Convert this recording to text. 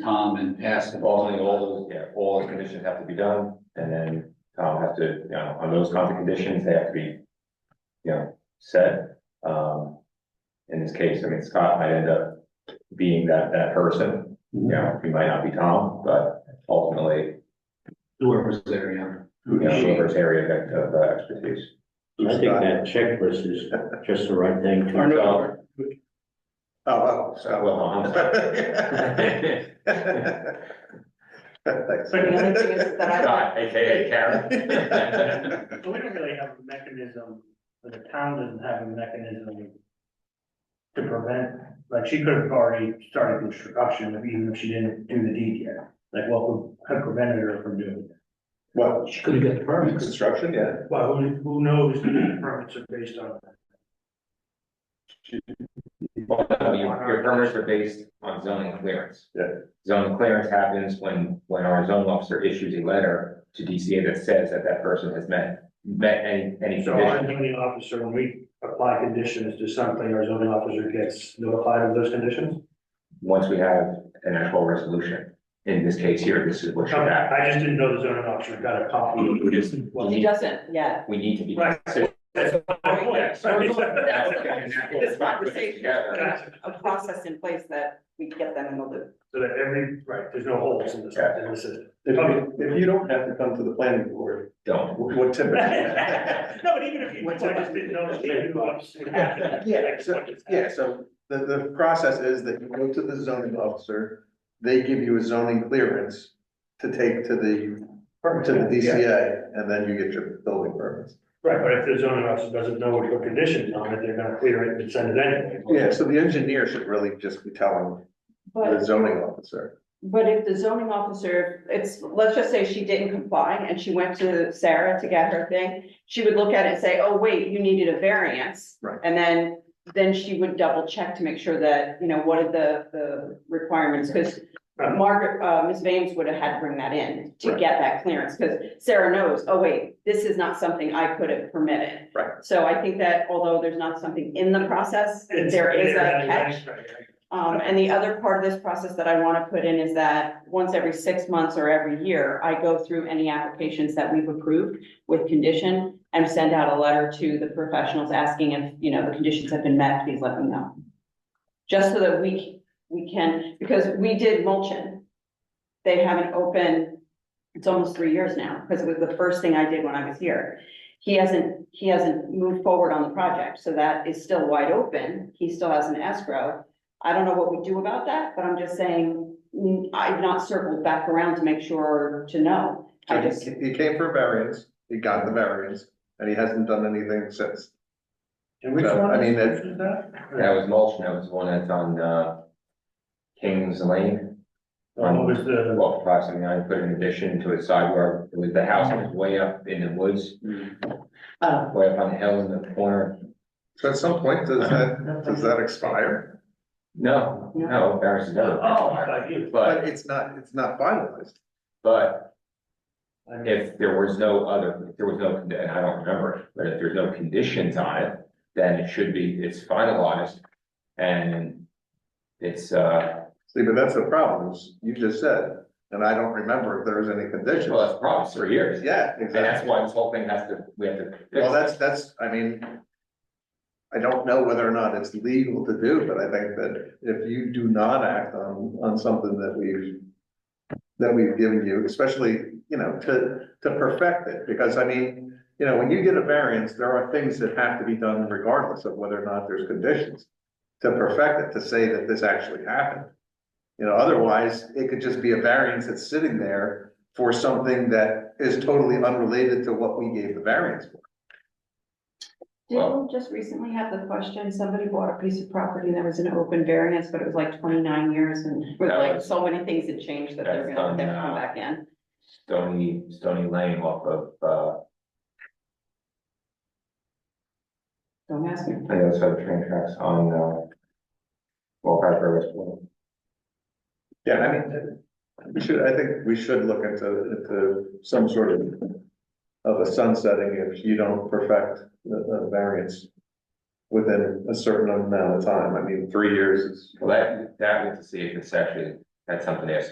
Tom and ask them. All the, all the, yeah, all the conditions have to be done, and then Tom has to, you know, on those conflict conditions, they have to be. You know, set, um, in this case, I mean, Scott might end up being that, that person, you know, he might not be Tom, but ultimately. Whoever's there, yeah. You know, whoever's area that, of uh, expertise. I think that checklist is just the right thing Or to, no. Oh, Scott Wilhelm. But the other thing is that I, Scott, AKA Karen. But we don't really have a mechanism, the town doesn't have a mechanism to prevent, like, she could have already started construction, even if she didn't do the deed yet. Like, what would have prevented her from doing it? What, She could have got the permits. construction, yeah, Well, who, who knows if the permits are based on, Well, no, your, your permits are based on zoning clearance. Yeah. Zoning clearance happens when, when our zoning officer issues a letter to DCA that says that that person has met, met any, any so our condition. zoning officer, when we apply conditions to something, our zoning officer gets notified of those conditions? Once we have an actual resolution, in this case here, this is what should happen. I just didn't know the zoning officer got a copy. We just, we he need, doesn't yet. we need to be. Right. consistent. That's my point. We're That's the Okay, point. and that's what This we're putting conversation, together. Gotcha. a process in place that we get them in the loop. So that every, right, there's no holes in this, in this system. if you, if you don't have to come to the planning board, Don't. wh- what typically? No, but even if you, I just didn't know. if you knew, obviously. Yeah, so, yeah, so the, the process is that you go to the zoning officer, they give you a zoning clearance to take to the, to the DCA, and then you get your building permits. Right, but if the zoning officer doesn't know what your conditions on it, they're gonna clear it and send it anyway. Yeah, so the engineer should really just be telling the But, zoning officer. but if the zoning officer, it's, let's just say she didn't comply and she went to Sarah to get her thing, she would look at it and say, oh, wait, you needed a variance. Right. And then, then she would double check to make sure that, you know, what are the, the requirements, because Margaret, uh, Ms. Vames would have had to bring that in to Right. get that clearance, because Sarah knows, oh, wait, this is not something I could have permitted. Right. So I think that although there's not something in the process, It's- there is a right, catch. right, right. Um, and the other part of this process that I want to put in is that once every six months or every year, I go through any applications that we've approved with condition and send out a letter to the professionals asking if, you know, the conditions have been met, please let them know. Just so that we, we can, because we did mulching. They haven't opened, it's almost three years now, because it was the first thing I did when I was here. He hasn't, he hasn't moved forward on the project, so that is still wide open. He still has an escrow. I don't know what we do about that, but I'm just saying, mm, I've not circled back around to make sure to know. I just, He he came for a variance, he got the variance, and he hasn't done anything since. And which So, one I mean, is it- is that? That was mulch, and that was the one that's on, uh, Kings Lane. Um, What was the, Well, approximately, I put an addition to a side yard, it was the house that was way up in the woods, uh, way up on the hill in the corner. So at some point, does that, does that expire? No, no, Barris is never. oh, I you. But But, it's not, it's not finalized. but I mean, if there was no other, if there was no, and I don't remember it, but if there's no conditions on it, then it should be, it's finalized. And it's, uh, See, but that's the problem, is you just said, and I don't remember if there was any well, conditions. that's probably three years. Yeah, And that's exactly. why this whole thing has to, we have to. fix Well, it. that's, that's, I mean, I don't know whether or not it's legal to do, but I think that if you do not act on, on something that we've, that we've given you, especially, you know, to, to perfect it, because I mean, you know, when you get a variance, there are things that have to be done regardless of whether or not there's conditions. To perfect it, to say that this actually happened. You know, otherwise, it could just be a variance that's sitting there for something that is totally unrelated to what we gave the variance for. didn't we just recently have the question, somebody bought a piece of property that was an open variance, but it was like twenty-nine years and with That like was- so many things had changed that they're That's gonna, they're done now. come back in. Stony, Stony Lane off of, uh, Don't ask me. I know it's other train tracks on, uh, Wolf River West. Yeah, I mean, we should, I think we should look into, into some sort of, of a sunsetting if you don't perfect the, the variance within a certain amount of time. I mean, three years is Well, that, that we have to see if it's actually, that's something that's